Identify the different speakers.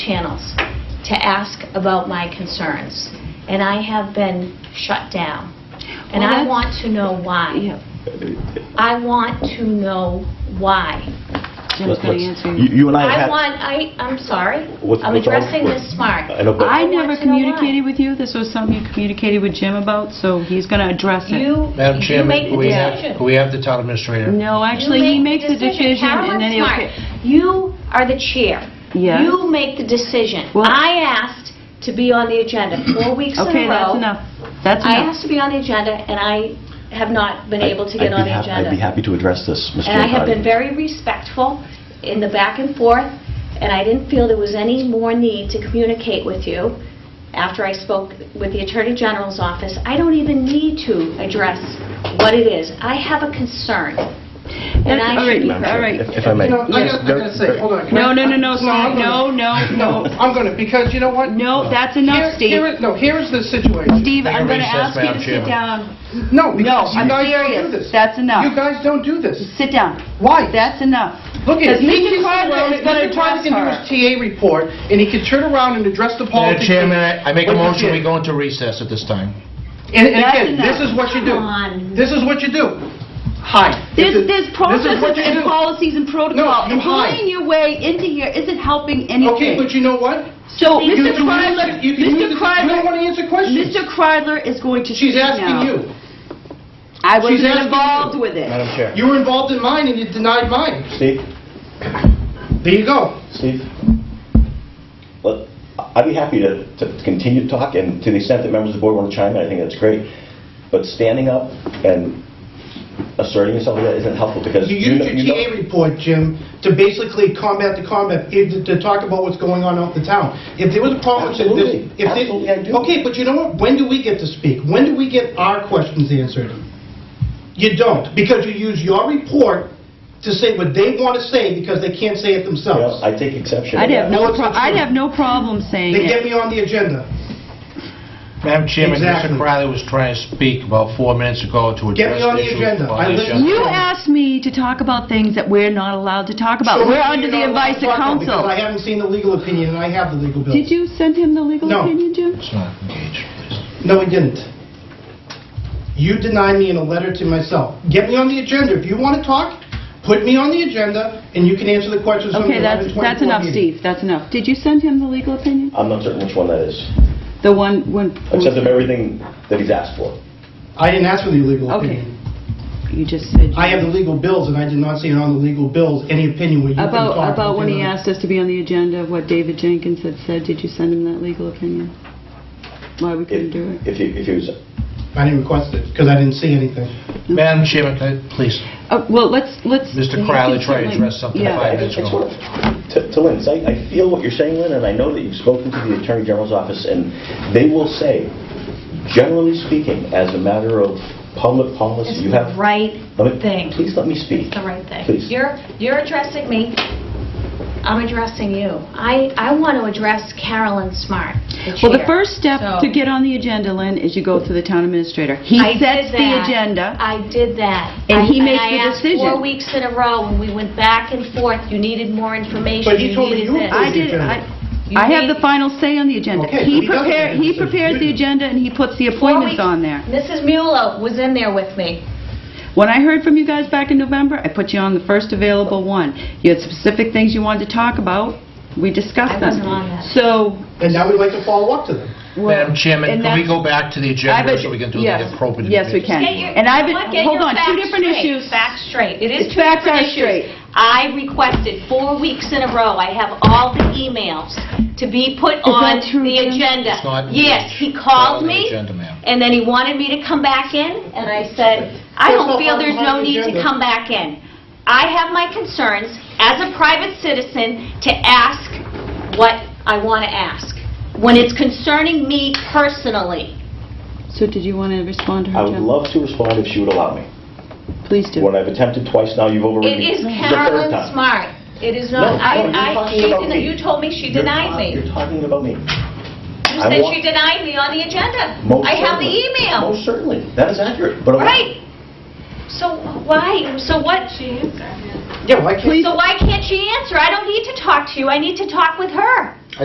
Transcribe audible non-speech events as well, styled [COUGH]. Speaker 1: channels to ask about my concerns, and I have been shut down. And
Speaker 2: Well,
Speaker 1: I
Speaker 2: that's-
Speaker 1: want to know why.
Speaker 2: Yeah,
Speaker 1: I want to know why.
Speaker 2: Jim's
Speaker 3: Let-
Speaker 2: going
Speaker 3: let's-
Speaker 2: to answer
Speaker 3: You
Speaker 2: you.
Speaker 3: you and I
Speaker 1: I
Speaker 3: have had...
Speaker 1: want, I, I'm sorry,
Speaker 3: What's-
Speaker 1: I'm
Speaker 3: what's wrong?
Speaker 1: addressing this smart.
Speaker 3: I know, but-
Speaker 2: I
Speaker 1: want
Speaker 2: never
Speaker 1: to know why.
Speaker 2: communicated with you. This was something you communicated with Jim about, so he's going to address it.
Speaker 1: You,
Speaker 4: Madam
Speaker 1: you
Speaker 4: Chairman,
Speaker 1: make
Speaker 4: can
Speaker 1: the
Speaker 4: we have,
Speaker 1: decision.
Speaker 4: can we have the town administrator?
Speaker 2: No, actually, he makes the decision and then he'll...
Speaker 1: Carolyn Smart, you are the chair.
Speaker 2: Yes.
Speaker 1: You make the decision.
Speaker 2: Well-
Speaker 1: I asked to be on the agenda four weeks in a row.
Speaker 2: Okay, that's enough. That's
Speaker 1: I
Speaker 2: enough.
Speaker 1: asked to be on the agenda, and I have not been able to get
Speaker 3: I'd
Speaker 1: on
Speaker 3: be
Speaker 1: the
Speaker 3: hap-
Speaker 1: agenda.
Speaker 3: I'd be happy to address this, Mr.
Speaker 1: And I have been
Speaker 3: O'Reilly.
Speaker 1: very respectful in the back and forth, and I didn't feel there was any more need to communicate with you after I spoke with the Attorney General's office. I don't even need to address what it is. I have a concern, and
Speaker 2: That's-
Speaker 1: I
Speaker 2: all
Speaker 1: should
Speaker 2: right,
Speaker 1: be
Speaker 3: Madam Chair,
Speaker 2: all right.
Speaker 3: if- If I may.
Speaker 4: You know, I gotta, I gotta say, hold on. can I-
Speaker 2: No, no, no, no,
Speaker 4: I'm
Speaker 2: no,
Speaker 4: gonna-
Speaker 2: no,
Speaker 4: [LAUGHS]
Speaker 2: no.
Speaker 4: I'm gonna, because you know what?
Speaker 2: No, that's
Speaker 4: Here- here
Speaker 2: enough, Steve.
Speaker 4: is- No, here's the situation.
Speaker 2: Steve,
Speaker 4: Take a
Speaker 2: I'm going to
Speaker 4: recess,
Speaker 2: ask you
Speaker 4: Madam
Speaker 2: to sit
Speaker 4: Chairman.
Speaker 2: down.
Speaker 4: No,
Speaker 2: No,
Speaker 4: because you
Speaker 2: I'm
Speaker 4: guys don't do
Speaker 2: serious.
Speaker 4: this.
Speaker 2: That's enough.
Speaker 4: You guys don't do this.
Speaker 2: Sit down.
Speaker 4: Why?
Speaker 2: That's enough.
Speaker 4: Look at
Speaker 2: Because
Speaker 4: it. He
Speaker 2: Mr.
Speaker 4: can
Speaker 2: Carter
Speaker 4: turn around
Speaker 2: is
Speaker 4: and-
Speaker 2: gonna
Speaker 4: Mr. Carter can do
Speaker 2: address
Speaker 4: his TA report, and he can turn around and address the
Speaker 5: Madam
Speaker 4: politics.
Speaker 5: Chairman, I I make a
Speaker 4: What you
Speaker 5: motion, we
Speaker 4: did.
Speaker 5: go into recess at this time.
Speaker 4: And and
Speaker 2: That's
Speaker 4: again, this
Speaker 2: enough.
Speaker 4: is what you
Speaker 1: Come
Speaker 4: do.
Speaker 1: on.
Speaker 4: This is what you do. Hide. This
Speaker 2: There's,
Speaker 4: is-
Speaker 2: there's
Speaker 4: This is
Speaker 2: processes
Speaker 4: what you
Speaker 2: and
Speaker 4: do.
Speaker 2: policies and protocols.
Speaker 4: you
Speaker 2: And
Speaker 4: lied.
Speaker 2: bullying your way into here isn't helping
Speaker 4: Okay, but
Speaker 2: anything.
Speaker 4: you know what?
Speaker 2: So,
Speaker 4: You
Speaker 2: Mr.
Speaker 4: can
Speaker 2: Kreidler,
Speaker 4: answer- you can
Speaker 2: Mr.
Speaker 4: answer- You don't
Speaker 2: Kreidler,
Speaker 4: want to answer questions.
Speaker 2: Mr. Kreidler is going to speak
Speaker 4: She's
Speaker 2: now.
Speaker 4: asking you.
Speaker 2: I
Speaker 4: She's
Speaker 2: wasn't
Speaker 4: asking
Speaker 2: involved
Speaker 4: you.
Speaker 2: with it.
Speaker 5: Madam Chair.
Speaker 4: You were involved in mine and you denied mine.
Speaker 3: Steve,
Speaker 4: There you go.
Speaker 3: Steve, Look, I'd be happy to to continue to talk, and to the extent that members of the board want to chime in, I think that's great. But standing up and asserting yourself like that isn't helpful, because
Speaker 6: You
Speaker 3: you
Speaker 6: used
Speaker 3: know...
Speaker 6: your
Speaker 3: you know-
Speaker 6: TA report, Jim, to basically combat the combat, eh, to to talk about what's going on out in the town. If there was a problem... if there-
Speaker 3: Absolutely.
Speaker 6: if there-
Speaker 3: Absolutely, I do.
Speaker 6: Okay, but you know what? When do we get to speak? When do we get our questions answered? You don't, because you use your report to say what they want to say because they can't say it
Speaker 3: you know,
Speaker 6: themselves.
Speaker 3: I take exception to
Speaker 2: I'd have
Speaker 3: that.
Speaker 2: no,
Speaker 6: it's
Speaker 2: pro-
Speaker 6: the
Speaker 2: I'd
Speaker 6: truth.
Speaker 2: have no problem saying
Speaker 6: They get
Speaker 2: it.
Speaker 6: me on the agenda.
Speaker 5: Madam Chairman, Mr.
Speaker 6: Exactly.
Speaker 5: Crowley was trying to speak about four minutes ago to
Speaker 6: Get me
Speaker 5: address
Speaker 6: on the
Speaker 5: issues
Speaker 6: agenda. I
Speaker 5: on the
Speaker 6: listen-
Speaker 5: agenda.
Speaker 2: You asked me to talk about things that we're not allowed to talk
Speaker 6: So
Speaker 2: about. We're
Speaker 6: maybe
Speaker 2: under
Speaker 6: you're
Speaker 2: the
Speaker 6: not allowed
Speaker 2: advice
Speaker 6: to
Speaker 2: of
Speaker 6: talk about it Because I
Speaker 2: counsel.
Speaker 6: haven't seen the legal opinion and I have the legal bill.
Speaker 2: Did you send him the legal
Speaker 6: No.
Speaker 2: opinion, Jim?
Speaker 5: Let's not engage, please.
Speaker 6: No, we didn't. You denied me in a letter to myself. Get me on the agenda. If you want to talk, put me on the agenda, and you can answer the questions from the
Speaker 2: Okay, that's,
Speaker 6: 11:24
Speaker 2: that's enough,
Speaker 6: meeting.
Speaker 2: Steve. That's enough. Did you send him the legal opinion?
Speaker 3: I'm not certain which one that is.
Speaker 2: The one, when...
Speaker 3: I've sent him everything that he's asked for.
Speaker 6: I didn't ask for the legal
Speaker 2: Okay.
Speaker 6: opinion.
Speaker 2: You just said...
Speaker 6: I have the legal bills, and I did not see it on the legal bills, any opinion where you can talk.
Speaker 2: About, about when he
Speaker 6: within-
Speaker 2: asked us to be on the agenda, what David Jenkins had said, did you send him that legal opinion? Why we couldn't
Speaker 3: If
Speaker 2: do it?
Speaker 3: if he if he was
Speaker 6: I didn't request it, because I didn't see anything.
Speaker 5: Madam Chairman, can I- please,
Speaker 2: Uh, Well, let's, let's...
Speaker 5: Mr.
Speaker 2: he
Speaker 5: Crowley
Speaker 2: can
Speaker 5: tried to
Speaker 2: certainly-
Speaker 5: address something
Speaker 2: Yeah.
Speaker 5: five
Speaker 3: It's
Speaker 5: minutes
Speaker 3: it's
Speaker 5: ago.
Speaker 3: worth, to to Lynn, so I I feel what you're saying, Lynn, and I know that you've spoken to the Attorney General's office, and they will say, generally speaking, as a matter of public policy,
Speaker 1: It's
Speaker 3: you have...
Speaker 1: the right
Speaker 3: Let me-
Speaker 1: thing.
Speaker 3: Please let me speak.
Speaker 1: the right thing.
Speaker 3: Please.
Speaker 1: You're, you're addressing me, I'm addressing you. I, I want to address Carolyn Smart, the
Speaker 2: Well, the
Speaker 1: chair.
Speaker 2: first step
Speaker 1: So-
Speaker 2: to get on the agenda, Lynn, is you go through the town administrator. He
Speaker 1: I did
Speaker 2: sets the
Speaker 1: that.
Speaker 2: agenda.
Speaker 1: I did that.
Speaker 2: And he
Speaker 1: I-
Speaker 2: makes the
Speaker 1: I asked
Speaker 2: decision.
Speaker 1: four weeks in a row, and we went back and forth, you needed more information,
Speaker 6: But he
Speaker 1: you
Speaker 6: told me
Speaker 1: needed
Speaker 6: you
Speaker 1: this.
Speaker 2: I
Speaker 6: approved
Speaker 2: did,
Speaker 6: agenda.
Speaker 2: I I have the final say on the agenda. He
Speaker 6: Okay, but he doesn't
Speaker 2: prepared,
Speaker 6: make
Speaker 2: he
Speaker 6: the decision.
Speaker 2: prepares the agenda and he puts the
Speaker 1: Four
Speaker 2: appointments
Speaker 1: weeks-
Speaker 2: on there.
Speaker 1: Mrs. Mueller was in there with me.
Speaker 2: When I heard from you guys back in November, I put you on the first available one. You had specific things you wanted to talk about, we discussed
Speaker 1: I
Speaker 2: them.
Speaker 1: wasn't on that.
Speaker 2: So,
Speaker 6: And now we'd like to follow up to them.
Speaker 2: well...
Speaker 5: Madam Chairman,
Speaker 2: and
Speaker 5: can we
Speaker 2: that's-
Speaker 5: go back to the
Speaker 2: I've
Speaker 5: agenda
Speaker 2: ad-
Speaker 5: so we can do
Speaker 2: yes,
Speaker 5: the appropriate?
Speaker 2: Yes, we can.
Speaker 1: Get your-
Speaker 2: And I've,
Speaker 1: Look, get
Speaker 2: hold
Speaker 1: your
Speaker 2: on, two
Speaker 1: facts
Speaker 2: different
Speaker 1: straight.
Speaker 2: issues.
Speaker 1: Facts straight. It is
Speaker 2: It's
Speaker 1: two
Speaker 2: facts
Speaker 1: different
Speaker 2: are straight.
Speaker 1: issues. I requested four weeks in a row, I have all the emails to be put on
Speaker 2: that true,
Speaker 1: the
Speaker 2: Jim?
Speaker 1: agenda.
Speaker 5: It's not-
Speaker 1: Yes, he
Speaker 5: Not
Speaker 1: called
Speaker 5: on the
Speaker 1: me,
Speaker 5: agenda, ma'am.
Speaker 1: and then he wanted me to come back in, and I said, I
Speaker 6: That's
Speaker 1: don't
Speaker 6: not
Speaker 1: feel there's
Speaker 6: on
Speaker 1: no
Speaker 6: the
Speaker 1: need to
Speaker 6: agenda.
Speaker 1: come back in. I have my concerns as a private citizen to ask what I want to ask, when it's concerning me personally.
Speaker 2: So did you want to respond to
Speaker 3: I
Speaker 2: her,
Speaker 3: would
Speaker 2: Jim?
Speaker 3: love to respond if she would allow me.
Speaker 2: Please do.
Speaker 3: When I've attempted twice now, you've overridden
Speaker 1: It
Speaker 3: me.
Speaker 1: is
Speaker 3: The third
Speaker 1: Carolyn
Speaker 3: time.
Speaker 1: Smart. It is
Speaker 3: No,
Speaker 1: not,
Speaker 3: no,
Speaker 1: I,
Speaker 3: you're
Speaker 1: I,
Speaker 3: talking
Speaker 1: she
Speaker 3: about
Speaker 1: denied,
Speaker 3: me.
Speaker 1: you told me she
Speaker 3: You're
Speaker 1: denied
Speaker 3: ta-
Speaker 1: me.
Speaker 3: You're talking about me.
Speaker 1: You
Speaker 3: I
Speaker 1: said
Speaker 3: want-
Speaker 1: she denied me on the agenda.
Speaker 3: Most
Speaker 1: I have the
Speaker 3: certainly.
Speaker 1: email.
Speaker 3: Most certainly. That is accurate, but... I want-
Speaker 1: Right. So why, so what,
Speaker 6: Yeah, why can't...
Speaker 1: so why can't she answer? I don't need to talk to you, I need to talk with her.